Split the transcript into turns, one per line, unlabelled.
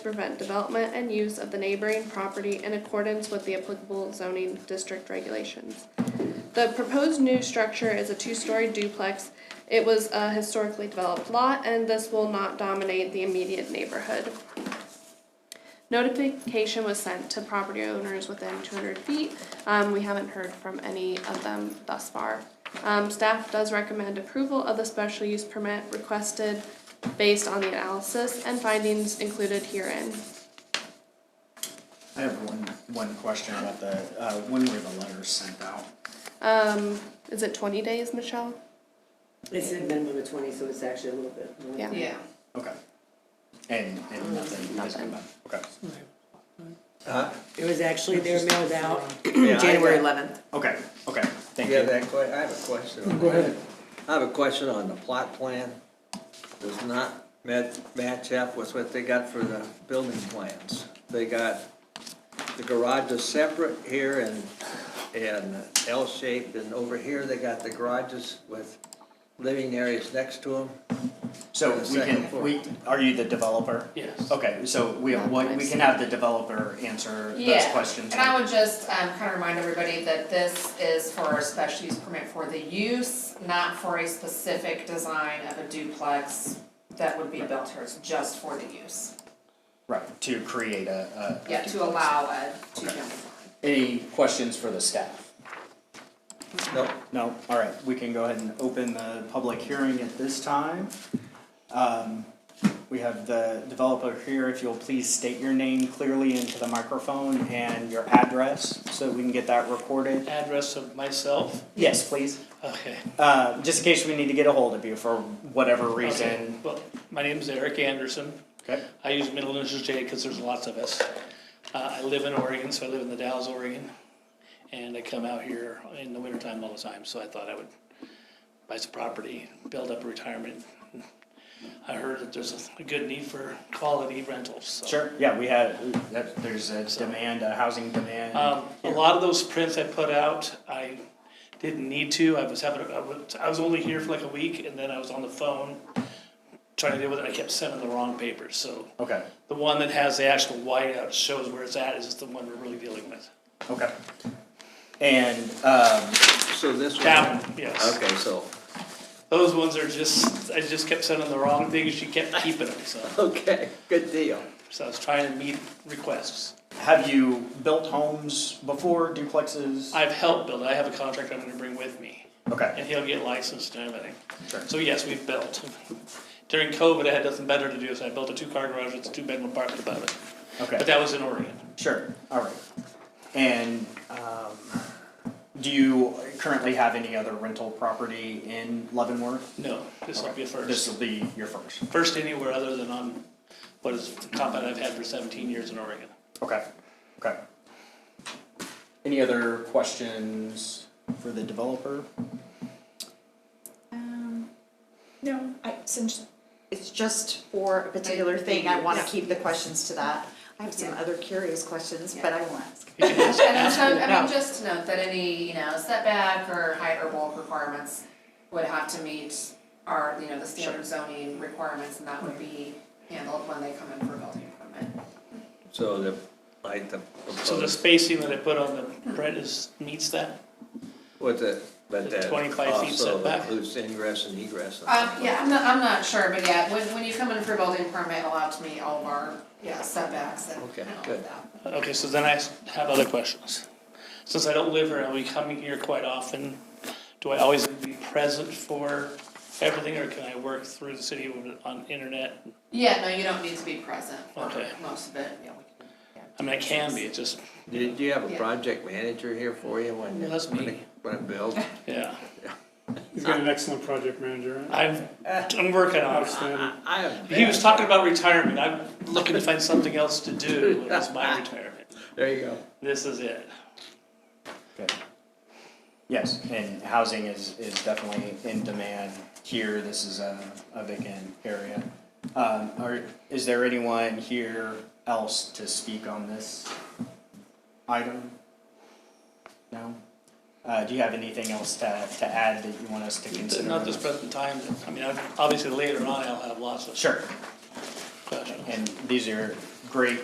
prevent development and use of the neighboring property in accordance with the applicable zoning district regulations. The proposed new structure is a two-story duplex. It was a historically developed lot, and this will not dominate the immediate neighborhood. Notification was sent to property owners within two hundred feet. Um, we haven't heard from any of them thus far. Um, staff does recommend approval of the special use permit requested based on the analysis and findings included herein.
I have one, one question about the, uh, when were the letters sent out?
Um, is it twenty days, Michelle?
It's a minimum of twenty, so it's actually a little bit more.
Yeah.
Yeah,
Okay. And, and nothing,
Nothing.
okay.
It was actually, they were mailed out
Yeah, I
January
got-
eleventh.
Okay, okay, thank
Yeah,
you.
that que, I have a question. Go ahead. I have a question on the plot plan. Does not met, match up with what they got for the building plans. They got, the garage is separate here and, and L-shaped, and over here they got the garages with living areas next to them.
So
the
we
second
can,
floor.
we, are you the developer?
Yes.
Okay, so we, what, we can have the developer answer those
yeah,
questions.
and I would just, um, kind of remind everybody that this is for a special use permit for the use, not for a specific design of a duplex that would be built here, it's just for the use,
Right, to create a, a. a
yeah, to
duplex.
allow a two-family.
Any questions for the staff?
No,
No, all right, we can go ahead and open the public hearing at this time. Um, We have the developer here, if you'll please state your name clearly into the microphone and your address, so we can get that recorded.
Address of myself,
Yes, please,
okay.
Uh, just in case we need to get a hold of you for whatever reason.
Well, my name is Eric Anderson.
Okay.
I use middle initials J because there's lots of us. Uh, I live in Oregon, so I live in the Dalles, Oregon. And I come out here in the wintertime all the time, so I thought I would buy some property, build up retirement. I heard that there's a good need for quality rentals, so.
Sure, yeah, we have, that- there's a demand, a housing demand.
Um, a lot of those prints I put out, I didn't need to, I was having, I was, I was only here for like a week, and then I was on the phone trying to deal with it, I kept sending the wrong papers, so
Okay,
the one that has the actual whiteout shows where it's at, is the one we're really dealing with.
okay. And, um,
so this one.
That one, yes,
Okay, so,
those ones are just, I just kept sending the wrong things, she kept keeping them, so,
okay, good deal.
so I was trying to meet requests.
have you built homes before, duplexes?
I've helped build, I have a contract I'm gonna bring with me.
Okay,
And he'll get licensed and everything.
Sure.
So yes, we've built. During COVID, I had nothing better to do, so I built a two-car garage with a two-bedroom apartment above it.
okay.
But that was in Oregon.
Sure, all right. And um, do you currently have any other rental property in Leavenworth?
No, this will be a
This
first.
will be your first.
First anywhere other than on, what is, the compound I've had for seventeen years in Oregon.
Okay, okay. Any other questions for the developer?
Um, no, I, since it's just for a particular thing, I wanna keep the questions to that. I have some other curious questions, but I won't ask.
You can
And then so, I
No.
mean, just to note that any, you know, setback or height or bulk requirements would have to meet our, you know, the standard zoning requirements, and that would be handled when they come in for building permit.
So the, like the
So the
proposed,
spacing that I put on the print is, meets that?
with the, but
The
that
25 feet
also
setback?
includes ingress and egress.
Um, yeah, I'm not, I'm not sure, but yeah, when, when you come in for building permit, allow to meet all of our, yeah, setbacks and
Okay,
and all of that.
good.
Okay, so then I have other questions. Since I don't live here, I'll be coming here quite often. Do I always be present for everything, or can I work through the city on internet?
Yeah, no, you don't need to be present for
Okay.
most of it, yeah, we can, yeah.
I mean, I can be, it's just,
Do, do you have a
Yeah.
project manager here for you when?
Well, that's
when
me.
it- When it builds?
yeah.
He's got an excellent project manager, right?
I'm, I'm working on it.
Outstanding.
I have.
He was talking about retirement, I'm looking to find something else to do, and it's my retirement.
There you go.
This is it.
Okay. Yes, and housing is, is definitely in demand here. This is a, a vacant area. Um, Are, is there anyone here else to speak on this item? No? Uh, do you have anything else to, to add that you want us to consider?
Not this present time, I mean, I've- obviously later on, I'll have lots of
Sure,
questions.
and these are great